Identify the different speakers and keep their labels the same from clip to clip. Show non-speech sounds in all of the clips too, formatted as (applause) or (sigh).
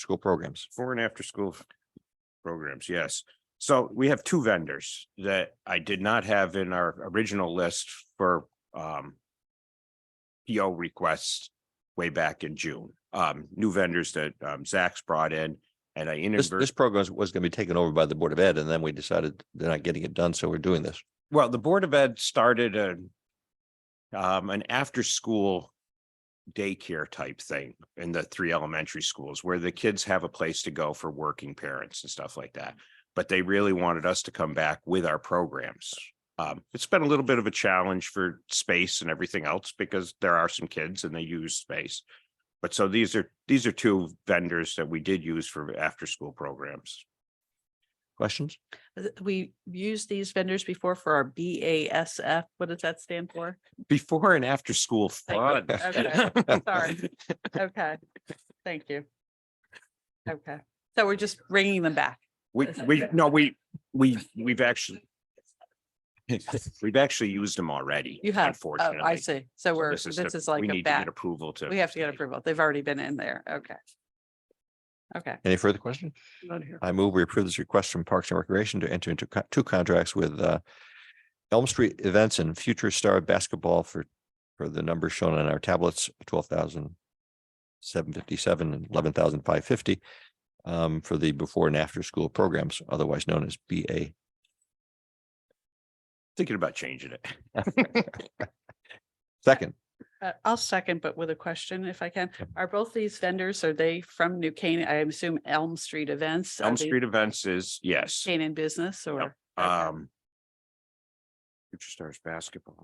Speaker 1: school programs.
Speaker 2: for and after school f- programs, yes. So we have two vendors that I did not have in our original list for um. PO requests way back in June, um, new vendors that um Zach's brought in and I
Speaker 1: This, this
Speaker 2: inadvertently,
Speaker 1: program was going to be taken over by the Board of Ed, and then we decided they're not getting it done, so we're doing this.
Speaker 2: well, the Board of Ed started a. Um, an after-school daycare type thing in the three elementary schools where the kids have a place to go for working parents and stuff like that. But they really wanted us to come back with our programs. Um, it's been a little bit of a challenge for space and everything else because there are some kids and they use space. But so these are, these are two vendors that we did use for after-school programs.
Speaker 1: Questions?
Speaker 3: Th- We used these vendors before for our BASF. What does that stand
Speaker 2: (laughs)
Speaker 3: for?
Speaker 2: Before and after-school fun. (laughs) Oh.
Speaker 3: Okay, sorry. Okay, thank you. Okay, so we're just bringing them back.
Speaker 2: We,
Speaker 3: Is that
Speaker 2: we,
Speaker 3: correct?
Speaker 2: no, we, we, we've actually. We've actually used them already.
Speaker 3: You have, oh,
Speaker 2: Unfortunately.
Speaker 3: I see. So
Speaker 2: So
Speaker 3: we're,
Speaker 2: the-
Speaker 3: this is
Speaker 2: we
Speaker 3: like
Speaker 2: need
Speaker 3: a
Speaker 2: to get
Speaker 3: back,
Speaker 2: Approval to.
Speaker 3: we have to get approval. They've already been in there. Okay. Okay.
Speaker 1: Any further questions? I move we approve this request from Parks and Recreation to enter into co- two contracts with uh, Elm Street Events and Future Star Basketball for, for the numbers shown on our tablets, twelve thousand seven fifty-seven and eleven thousand five fifty um, for the before and after school programs, otherwise known as BA.
Speaker 2: Thinking about changing it.
Speaker 1: Second,
Speaker 3: Uh, I'll second, but with a question if I can.
Speaker 1: Yep.
Speaker 3: Are both these vendors, are they from New Canaan? I assume Elm Street Events? Are
Speaker 2: Elm
Speaker 3: they
Speaker 2: Street Events is, yes,
Speaker 3: Canaan Business or? Okay.
Speaker 2: um. Future Stars Basketball.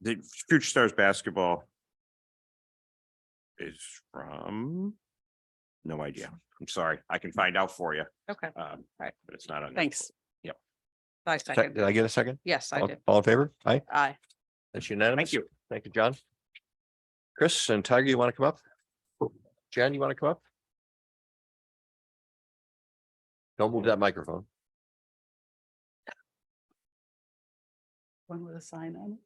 Speaker 2: The Future Stars Basketball. Is from. No idea. I'm sorry. I can find out for you,
Speaker 3: Okay,
Speaker 2: um, but
Speaker 3: Alright.
Speaker 2: it's not on.
Speaker 3: thanks.
Speaker 2: Yep.
Speaker 3: I
Speaker 1: sec-
Speaker 3: second.
Speaker 1: did I get a second?
Speaker 3: Yes, I
Speaker 1: All
Speaker 3: did.
Speaker 1: all in favor? Aye.
Speaker 3: Aye.
Speaker 1: That's unanimous.
Speaker 2: Thank you.
Speaker 1: Thank you, John. Chris and Tiger, you want to come up? Jan, you want to come up? Don't move that microphone.
Speaker 3: One with a sign on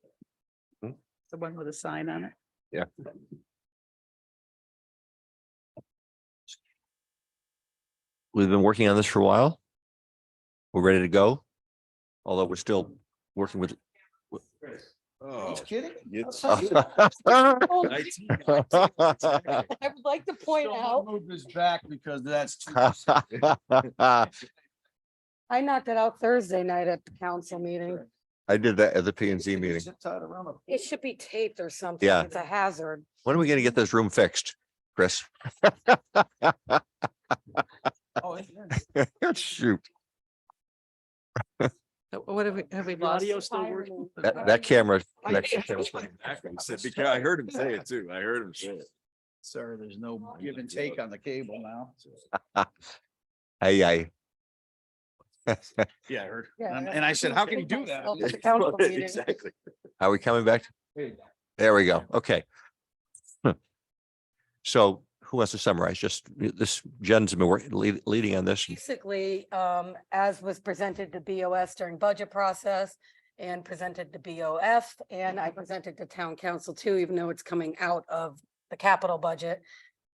Speaker 1: Hmm?
Speaker 3: it. The one with a sign on it.
Speaker 1: Yeah. We've been working on this for a while. We're ready to go. Although we're still working with. (laughs)
Speaker 2: Oh,
Speaker 4: kidding? (laughs)
Speaker 2: (laughs)
Speaker 1: All
Speaker 4: I would like to point out. Move this back because that's.
Speaker 2: (laughs)
Speaker 4: too-
Speaker 5: I knocked it out Thursday night at the council meeting.
Speaker 1: I did that at the P and Z meeting.
Speaker 4: Sit tight around the-
Speaker 5: It should be taped or something.
Speaker 1: Yeah.
Speaker 5: It's a hazard.
Speaker 1: When are we gonna get this room fixed, Chris? (laughs)
Speaker 4: Oh, it's-
Speaker 1: Shoot,
Speaker 3: So What have we, have we lost?
Speaker 5: Fire and-
Speaker 1: that, that camera connection.
Speaker 6: I heard him say it too. I heard him say it.
Speaker 4: Sir, there's no give and take on the cable now.
Speaker 1: Hey, I.
Speaker 4: Yeah, I heard.
Speaker 5: Yeah,
Speaker 4: And and I said, how can you do that?
Speaker 5: It's
Speaker 4: (laughs)
Speaker 5: a council
Speaker 6: (laughs)
Speaker 5: meeting.
Speaker 6: Exactly.
Speaker 1: (laughs) Are we coming back? There we go. Okay. Hmm. So who wants to summarize? Just this, Jen's been work- lead- leading on this.
Speaker 5: Basically, um, as was presented to BOS during budget process and presented to BOF, and I presented to town council too, even though it's coming out of the capital budget.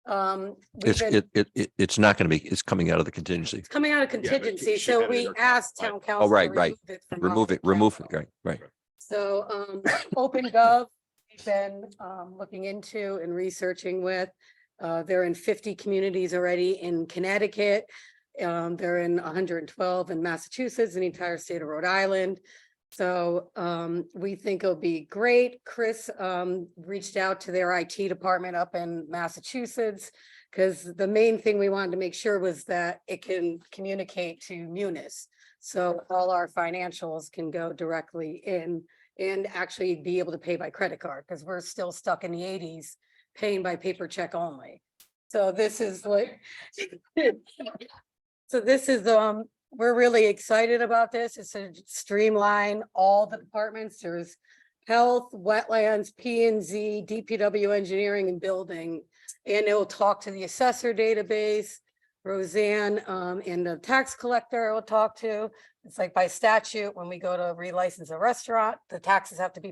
Speaker 5: Um, we've
Speaker 1: It's,
Speaker 5: been-
Speaker 1: it, it, it- it's not going to be, it's coming out of the contingency.
Speaker 5: it's coming out of
Speaker 6: but you
Speaker 5: contingency,
Speaker 6: should
Speaker 5: so
Speaker 6: have it in
Speaker 5: we
Speaker 6: your cap-
Speaker 5: asked
Speaker 6: right.
Speaker 5: town council. to
Speaker 1: Oh, right, right. Remove
Speaker 5: remove it from our
Speaker 1: it, remove it.
Speaker 5: capital.
Speaker 1: Right, right.
Speaker 5: So um, OpenGov, we've been um, looking into and researching with. Uh, they're in fifty communities already in Connecticut. Um, they're in hundred and twelve in Massachusetts and the entire state of Rhode Island. So um, we think it'll be great. Chris um, reached out to their IT department up in Massachusetts. Because the main thing we wanted to make sure was that it can communicate to Munis. So all our financials can go directly in and actually be able to pay by credit card because we're still stuck in the eighties paying by paper check only. So this is like. So this is, um, we're really excited about this. It's to streamline all the departments. There's health, wetlands, P and Z, DPW engineering and building. And it will talk to the assessor database. Roseanne, um, and the tax collector I will talk to. It's like by statute, when we go to relicense a restaurant, the taxes have to be